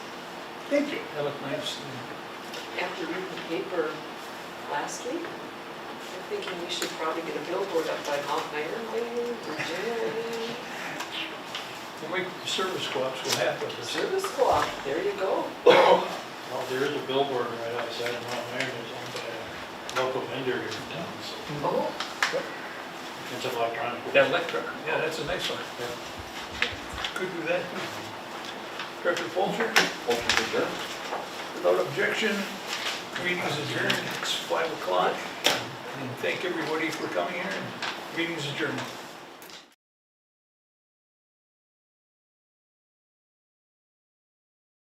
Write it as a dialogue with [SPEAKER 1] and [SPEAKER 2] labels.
[SPEAKER 1] Thank you.
[SPEAKER 2] That looked nice.
[SPEAKER 3] after reading the paper last week, I'm thinking we should probably get a billboard up by Mount Ironwood, Virginia.
[SPEAKER 2] And we, service co-ops will have
[SPEAKER 3] The
[SPEAKER 2] this.
[SPEAKER 3] Service co-op, there you go.
[SPEAKER 2] Well, there is a billboard right outside Mount Iron, it's owned by a local vendor here in town, so
[SPEAKER 3] Oh,
[SPEAKER 2] it's electronic.
[SPEAKER 4] That electric.
[SPEAKER 2] Yeah, that's a nice one. Could do that. Director Polter,
[SPEAKER 4] Motion to adjourn.
[SPEAKER 2] without objection, meeting's adjourned, it's five o'clock. And thank everybody for coming here, meeting's adjourned.